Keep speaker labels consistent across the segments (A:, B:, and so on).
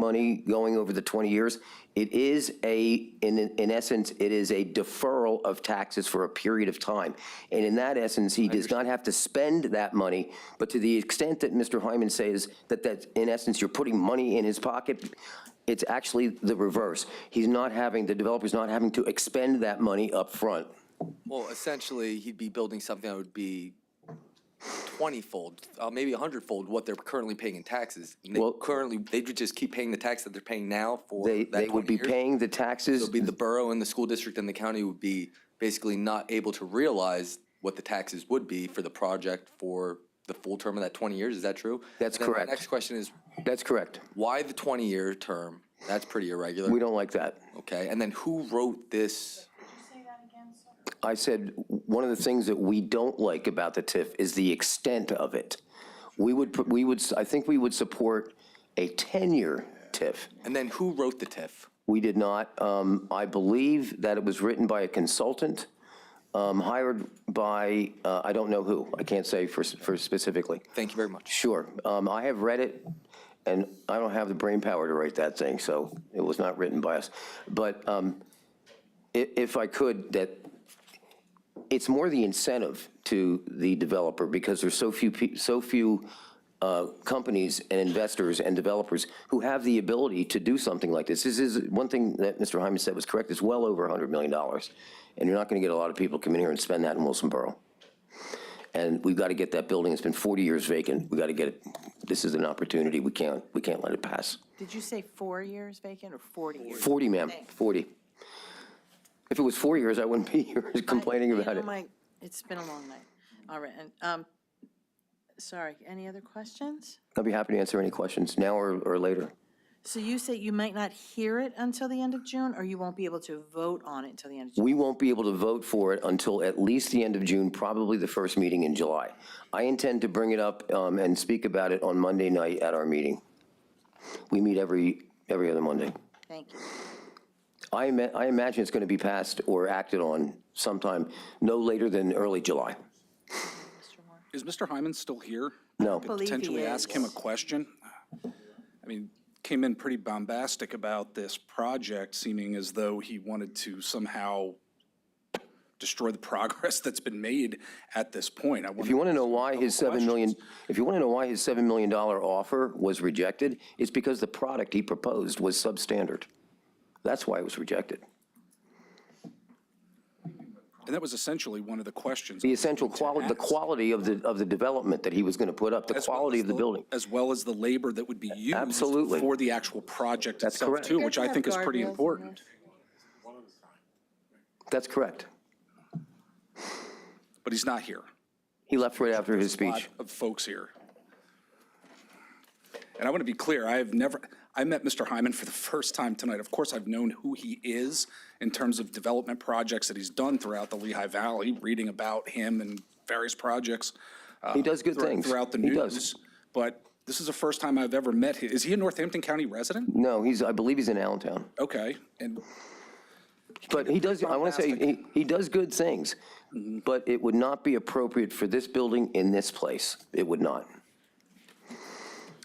A: money going over the 20 years. It is a, in, in essence, it is a deferral of taxes for a period of time. And in that essence, he does not have to spend that money. But to the extent that Mr. Hyman says that, that in essence, you're putting money in his pocket, it's actually the reverse. He's not having, the developer's not having to expend that money up front.
B: Well, essentially, he'd be building something that would be twenty-fold, uh, maybe a hundred-fold what they're currently paying in taxes. And They
A: Well-
B: currently, they would just keep paying the tax that they're paying now for
A: They,
B: that
A: they would
B: 20
A: be
B: years.
A: paying the taxes.
B: It'd be the borough and the school district and the county would be basically not able to realize what the taxes would be for the project for the full term of that twenty years, is that true?
A: That's
B: And then my
A: correct.
B: Next question is,
A: That's correct.
B: why the twenty-year term? That's pretty irregular.
A: We don't like that.
B: Okay, and then who wrote this?
A: I said, one of the things that we don't like about the TIF is the extent of it. We would, put- we would, I think we would support a 10-year TIF.
B: And then who wrote the TIF?
A: We did not. Um, I believe that it was written by a consultant um, hired by, uh, I don't know who. I can't say for for specifically.
B: Thank you very much.
A: Sure. Um, I have read it, and I don't have the brain power to write that thing, so it was not written by us. But um, i- if I could, that, it's more the incentive to the developer, because there's so few, pe- so few uh, companies and investors and developers who have the ability to do something like this. This is, one thing that Mr. Hyman said was correct, it's well over $100 million, and you're not going to get a lot of people come in here and spend that in Wilson Borough. And we've got to get that building, it's been 40 years vacant, we got to get it, this is an opportunity, we can't, we can't let it pass.
C: Did you say four years vacant or 40 years?
A: 40, ma'am, 40. If it was four years, I wouldn't be here complaining
C: I- you
A: about
C: know,
A: it.
C: my- It's been a long night. All right, and, um, sorry, any other questions?
A: I'd be happy to answer any questions, now or, or later.
C: So you say you might not hear it until the end of June, or you won't be able to vote on it until the end of June?
A: We won't be able to vote for it until at least the end of June, probably the first meeting in July. I intend to bring it up um, and speak about it on Monday night at our meeting. We meet every, every other Monday.
C: Thank you.
A: I ima- I imagine it's going to be passed or acted on sometime no later than early July.
D: Is Mr. Hyman still here?
A: No.
C: Believe he
D: Potentially ask him a
C: is.
D: question? I mean, came in pretty bombastic about this project, seeming as though he wanted to somehow destroy the progress that's been made at this point. I
A: If you
D: wonder,
A: want to know why his 7 million, if you want to know why his $7 million offer was rejected, it's because the product he proposed was substandard. That's why it was rejected.
D: and that was essentially one of the questions.
A: The essential quality, the quality of the, of the development that he was going to put up, the
D: as well
A: quality
D: as
A: of the building.
D: As well as the labor that would be used.
A: Absolutely.
D: For the actual project
A: That's
D: itself
A: correct.
D: too, which I think is pretty
C: Guardrails in
D: important.
A: That's correct.
D: But he's not here.
A: He left right after his
D: lot
A: speech.
D: of folks here. And I want to be clear, I have never, I met Mr. Hyman for the first time tonight. Of course, I've known who he is in terms of development projects that he's done throughout the Lehigh Valley, reading about him and various projects. uh,
A: He does good
D: thro-
A: things.
D: Throughout the
A: He does.
D: news. But this is the first time I've ever met him. Is he a Northampton County resident?
A: No, he's, I believe he's in Allentown.
D: Okay, and
A: But he does, I want to say, he, he does good things, but it would not be appropriate for this building in this place. It would not.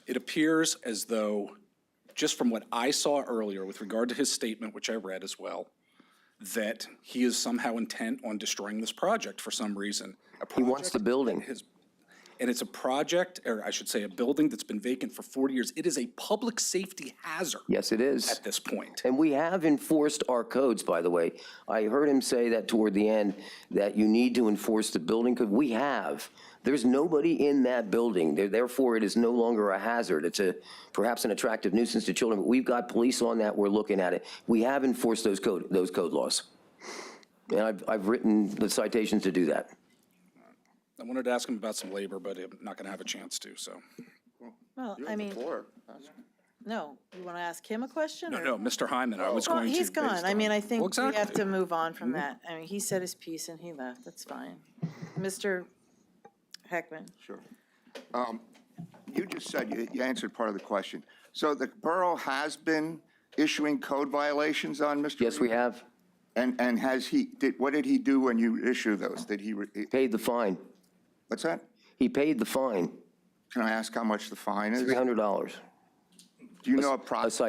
D: it appears as though, just from what I saw earlier with regard to his statement, which I read as well, that he is somehow intent on destroying this project for some reason. A
A: He wants the
D: project-
A: building.
D: And it's a project, or I should say, a building that's been vacant for 40 years. It is a public safety hazard
A: Yes, it is.
D: at this point.
A: And we have enforced our codes, by the way. I heard him say that toward the end, that you need to enforce the building code. We have. There's nobody in that building. There- Therefore, it is no longer a hazard. It's a, perhaps an attractive nuisance to children, but we've got police on that. We're looking at it. We have enforced those code, those code laws. And I've, I've written the citations to do that.
D: I wanted to ask him about some labor, but I'm not going to have a chance to, so.
C: Well, I mean, no, you want to ask him a question?
D: No,
C: or-
D: no, Mr. Hyman, I was
C: Well,
D: going to.
C: he's
D: based
C: gone. I
D: on-
C: mean, I think
D: Well,
C: we have
D: exactly. Mm-hmm.
C: to move on from that. I mean, he said his piece and he left. That's fine. Mr. Heckman?
E: Sure. Um, You just said, you you answered part of the question. So the borough has been issuing code violations on Mr.
A: Yes, we
E: Reed?
A: have
E: And, and has he, did, what did he do when you issue those? Did he, re-
A: paid the fine.
E: what's that?
A: He paid the fine,
E: Can I ask how much the fine is?
A: $300.
E: Do you know
A: A uh,
E: approximately?